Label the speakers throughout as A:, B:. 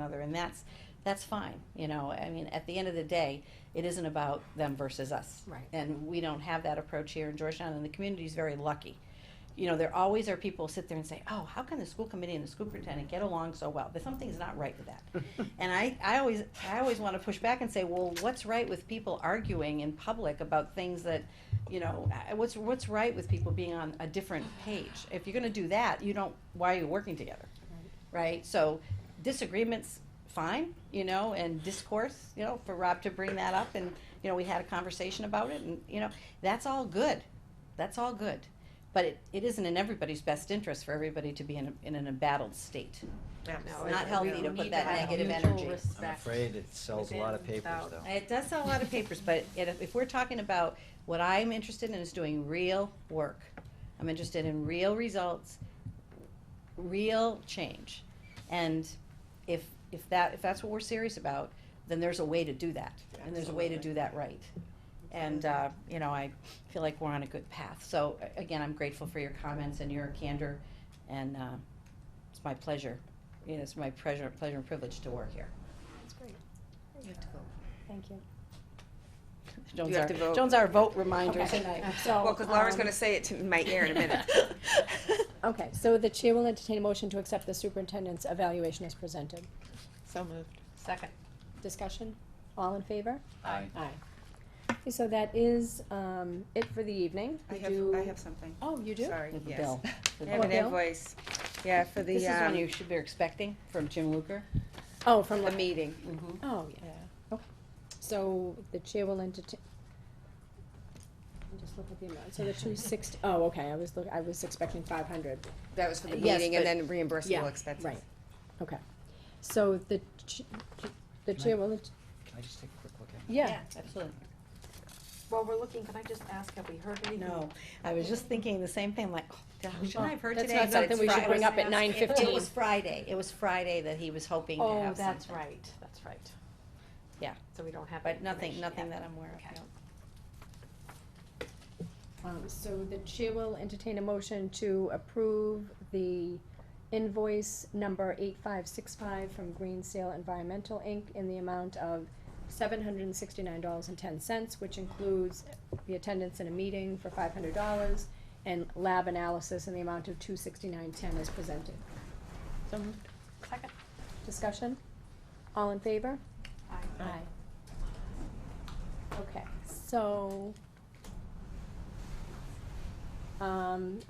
A: another, and that's, that's fine, you know, I mean, at the end of the day, it isn't about them versus us.
B: Right.
A: And we don't have that approach here in Georgetown, and the community's very lucky. You know, there always are people sit there and say, oh, how can the school committee and the school superintendent get along so well? But something's not right with that. And I, I always, I always wanna push back and say, well, what's right with people arguing in public about things that, you know, I- what's, what's right with people being on a different page? If you're gonna do that, you don't, why are you working together? right? So disagreements, fine, you know, and discourse, you know, for Rob to bring that up and, you know, we had a conversation about it and, you know, that's all good. That's all good. But it, it isn't in everybody's best interest for everybody to be in, a, in an embattled state.
B: No,
A: not
B: it-
A: healthy
B: we
A: to put
B: need
A: that
B: have
A: negative
B: mutual
A: energy. I'm
B: respect.
C: I'm afraid it sells a lot of
B: within,
C: papers,
B: without.
C: though.
A: It does sell a lot of papers, but it, if we're talking about what I'm interested in is doing real work. I'm interested in real results, real change. And if, if that, if that's what we're serious about, then there's a way to do that, and there's a way to do that right. And, uh, you know, I feel like we're on a good path. So, a- again, I'm grateful for your comments and your candor, and, uh, it's my pleasure, you know, it's my pleasure, pleasure and privilege to work here.
B: That's great. You have to go.
D: Thank you.
A: Jones
E: You have
A: our-
E: to vote.
A: Jones our vote reminder
D: Okay.
A: tonight.
D: So,
E: Well, because Laura's
D: um,
E: going to say it to my ear in a minute.
D: Okay, so the chair will entertain a motion to accept the superintendent's evaluation as presented.
E: So moved.
B: Second.
D: Discussion? All in favor?
C: I
D: Aye. Okay, So that is, um, it for the evening.
E: I
D: We
E: have,
D: do-
E: I have something.
D: Oh, you do?
E: Sorry,
A: With the
E: yes.
A: Oh, bill.
E: I
A: With the
E: have an
D: bill.
E: invoice, yeah, for
A: This
E: the,
A: is one
E: um,
A: you should be expecting from Jim Luker.
D: Oh, from
E: the
D: the,
E: meeting.
A: Mm-hmm.
D: oh, yeah, okay. So the chair will entertain. Let me Just look at the amount, so the two sixty, oh, okay, I was look, I was expecting five hundred.
E: That was for the
D: Yes,
E: meeting and
D: but-
E: then
D: Yeah,
E: reimbursable expenses.
D: Right, okay. So the, ch- the
C: Can I-
D: chair will, ent-
C: Can I just take a quick look at it?
D: yeah.
A: Absolutely.
B: While we're looking, can I just ask, have we heard anything?
A: No, I was just thinking the same thing, like, oh, shouldn't I have heard
D: That's
A: today?
D: not
A: But
D: something
A: it's
D: we should
A: Friday.
D: bring up at
B: It was-
D: nine
A: It
D: fifteen.
A: was Friday, it was Friday that he was hoping to
B: Oh,
A: have
B: that's
A: something.
B: right, that's right.
A: Yeah.
B: So we don't have.
A: But nothing,
B: information
A: nothing
B: yet.
A: that I'm aware
B: Okay.
A: of, no.
D: Um, so the chair will entertain a motion to approve the invoice number eight five six five from Green Sale Environmental Inc. in the amount of seven hundred and sixty-nine dollars and ten cents, which includes the attendance in a meeting for five hundred dollars and lab analysis in the amount of two sixty-nine ten as presented.
B: Second.
D: Discussion? All in favor?
B: Aye.
D: Aye. Okay, so. Um,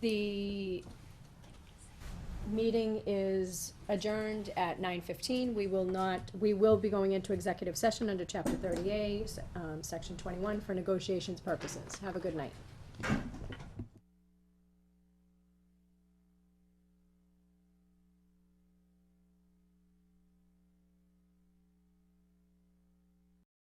D: the meeting is adjourned at nine fifteen. We will not, we will be going into executive session under chapter thirty-eight, um, section twenty-one for negotiations purposes. Have a good night.